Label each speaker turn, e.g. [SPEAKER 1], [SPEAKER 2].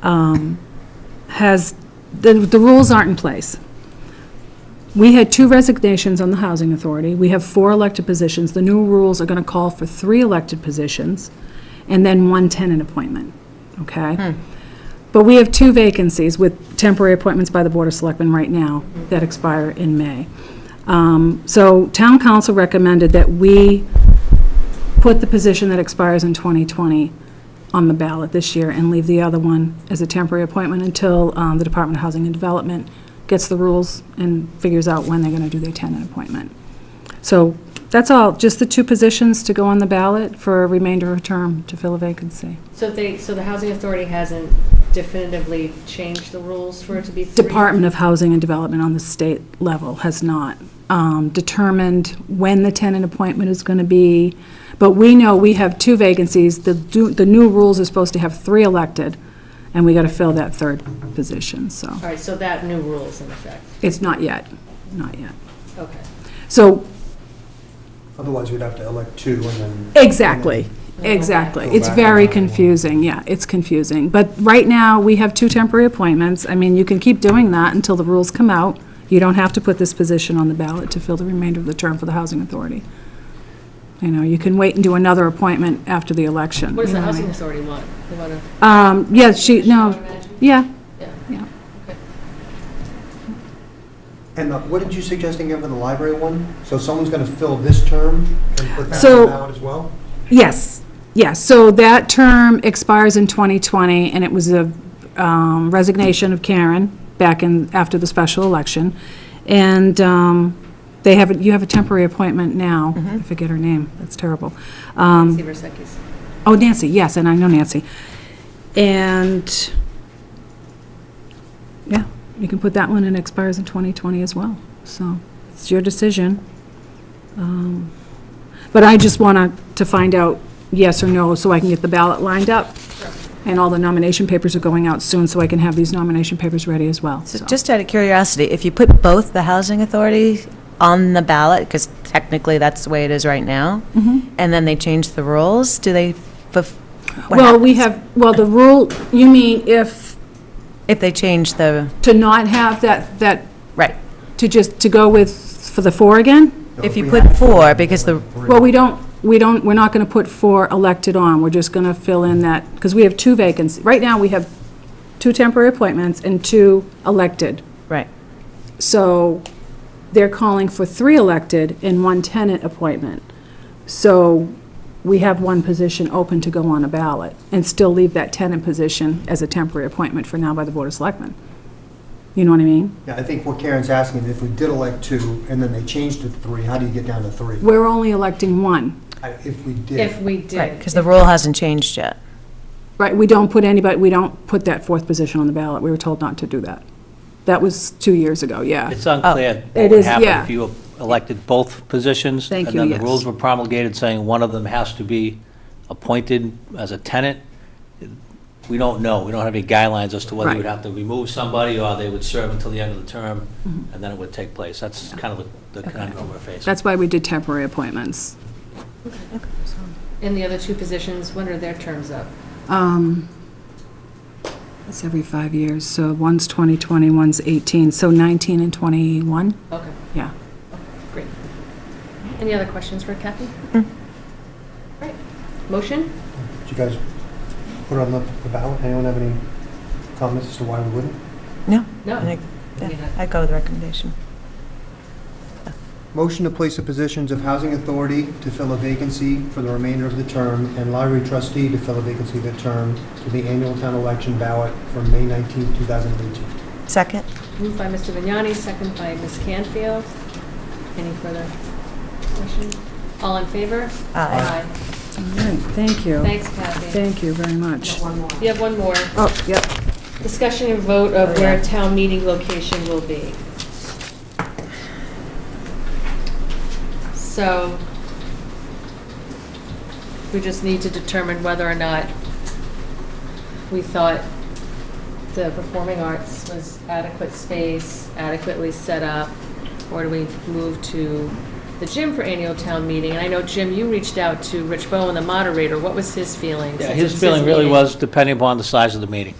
[SPEAKER 1] um, has, the, the rules aren't in place. We had two resignations on the Housing Authority. We have four elected positions. The new rules are going to call for three elected positions and then one tenant appointment, okay? But we have two vacancies with temporary appointments by the Board of Selectmen right now that expire in May. Um, So Town Council recommended that we put the position that expires in 2020 on the ballot this year and leave the other one as a temporary appointment until um, the Department of Housing and Development gets the rules and figures out when they're going to do their tenant appointment. So that's all, just the two positions to go on the ballot for a remainder of a term to fill a vacancy.
[SPEAKER 2] So if they, so the housing authority hasn't definitively changed the rules for it to be three?
[SPEAKER 1] Department of Housing and Development on the state level has not um, determined when the tenant appointment is going to be, but we know we have two vacancies. The, do- the new rules are supposed to have three elected, and we got to fill that third position, so.
[SPEAKER 2] All right, so that new rule is in effect.
[SPEAKER 1] It's not yet, not yet.
[SPEAKER 2] Okay.
[SPEAKER 1] So,
[SPEAKER 3] Otherwise, we'd have to elect two and then.
[SPEAKER 1] exactly, exactly.
[SPEAKER 3] Go
[SPEAKER 1] It's
[SPEAKER 3] back
[SPEAKER 1] very
[SPEAKER 3] around one.
[SPEAKER 1] confusing, yeah, it's confusing. But right now, we have two temporary appointments. I mean, you can keep doing that until the rules come out. You don't have to put this position on the ballot to fill the remainder of the term for the Housing Authority. You know, you can wait and do another appointment after the election.
[SPEAKER 2] What does
[SPEAKER 1] you
[SPEAKER 2] the
[SPEAKER 1] know what I
[SPEAKER 2] housing
[SPEAKER 1] mean?
[SPEAKER 2] authority want? They want to,
[SPEAKER 1] Um, yeah, she,
[SPEAKER 2] Should
[SPEAKER 1] no,
[SPEAKER 2] I imagine?
[SPEAKER 1] yeah,
[SPEAKER 2] yeah.
[SPEAKER 1] yeah.
[SPEAKER 3] And uh, what did you suggest again for the library one? So someone's going to fill this term and put that
[SPEAKER 1] So-
[SPEAKER 3] one out as well?
[SPEAKER 1] Yes, yes. So that term expires in 2020, and it was a um, resignation of Karen back in, after the special election. And um, they have, a- you have a temporary appointment now. I forget her name. That's terrible. Um,
[SPEAKER 2] Nancy Versekis.
[SPEAKER 1] Oh, Nancy, yes, and I know Nancy. And, yeah, you can put that one, and it expires in 2020 as well. So it's your decision. Um, But I just want to find out yes or no, so I can get the ballot lined up. And all the nomination papers are going out soon, so I can have these nomination papers ready as well.
[SPEAKER 4] So just out of curiosity, if you put both the housing authority on the ballot, because technically that's the way it is right now,
[SPEAKER 1] Mm-hmm.
[SPEAKER 4] and then they change the rules, do they, fuf- what
[SPEAKER 1] Well, we
[SPEAKER 4] happens
[SPEAKER 1] have, well, the rule, you mean if,
[SPEAKER 4] If they change the,
[SPEAKER 1] to not have that, that,
[SPEAKER 4] right,
[SPEAKER 1] to just, to go with, for the four again?
[SPEAKER 3] No,
[SPEAKER 4] if you
[SPEAKER 3] we
[SPEAKER 4] put
[SPEAKER 3] have-
[SPEAKER 4] four, because the,
[SPEAKER 3] Three.
[SPEAKER 1] Well, we don't, we don't, we're not going to put four elected on, we're just going to fill in that, because we have two vacancies. Right now, we have two temporary appointments and two elected.
[SPEAKER 4] right,
[SPEAKER 1] So they're calling for three elected and one tenant appointment. So we have one position open to go on a ballot and still leave that tenant position as a temporary appointment for now by the Board of Selectmen. You know what I mean?
[SPEAKER 3] Yeah, I think what Karen's asking, is if we did elect two and then they changed to three, how do you get down to three?
[SPEAKER 1] We're only electing one.
[SPEAKER 3] I- If we
[SPEAKER 2] If
[SPEAKER 3] did,
[SPEAKER 2] we
[SPEAKER 4] right,
[SPEAKER 2] did.
[SPEAKER 4] because the rule hasn't changed yet.
[SPEAKER 1] Right, we don't put anybody, we don't put that fourth position on the ballot. We were told not to do that. That was two years ago, yeah.
[SPEAKER 5] It's unclear
[SPEAKER 1] Oh, It
[SPEAKER 5] what would
[SPEAKER 1] is,
[SPEAKER 5] happen
[SPEAKER 1] yeah.
[SPEAKER 5] if you elected both positions.
[SPEAKER 1] Thank you,
[SPEAKER 5] And then
[SPEAKER 1] yes.
[SPEAKER 5] the rules were promulgated saying one of them has to be appointed as a tenant. We don't know. We don't have any guidelines as to whether
[SPEAKER 1] Right.
[SPEAKER 5] you would have to remove somebody or they would serve until the end of the term, and then it would take place. That's kind of the the conundrum we're facing.
[SPEAKER 1] Mm-hmm. That's why we did temporary appointments.
[SPEAKER 2] And the other two positions, when are their terms up?
[SPEAKER 1] Um, It's every five years, so one's 2020, one's 18, so 19 and 21,
[SPEAKER 2] Okay,
[SPEAKER 1] yeah.
[SPEAKER 2] great. Any other questions for Kathy?
[SPEAKER 1] Hmm.
[SPEAKER 2] Right. Motion?
[SPEAKER 3] did you guys put it on the the ballot? Anyone have any comments as to why we wouldn't?
[SPEAKER 4] No?
[SPEAKER 2] No.
[SPEAKER 4] I think-
[SPEAKER 2] We need
[SPEAKER 4] yeah,
[SPEAKER 2] a-
[SPEAKER 4] I go with the recommendation.
[SPEAKER 3] Motion to place the positions of Housing Authority to fill a vacancy for the remainder of the term and Library Trustee to fill a vacancy of the term to the annual town election ballot for May 19, 2018.
[SPEAKER 4] Second?
[SPEAKER 2] Moved by Mr. Vignani, second by Ms. Canfield. Any further questions? All in favor?
[SPEAKER 4] Aye.
[SPEAKER 1] All right, thank you.
[SPEAKER 2] Thanks, Kathy.
[SPEAKER 1] Thank you very much.
[SPEAKER 2] You have one more.
[SPEAKER 1] Oh, yep. Oh,
[SPEAKER 2] Discussion and vote of where town meeting location will be. So we just need to determine whether or not we thought the performing arts was adequate space, adequately set up, or do we move to the gym for annual town meeting? And I know, Jim, you reached out to Rich Bowen, the moderator. What was his feeling?
[SPEAKER 5] Yeah,
[SPEAKER 2] since
[SPEAKER 5] his
[SPEAKER 2] it's
[SPEAKER 5] feeling really
[SPEAKER 2] meeting?
[SPEAKER 5] was depending upon the size of the meeting.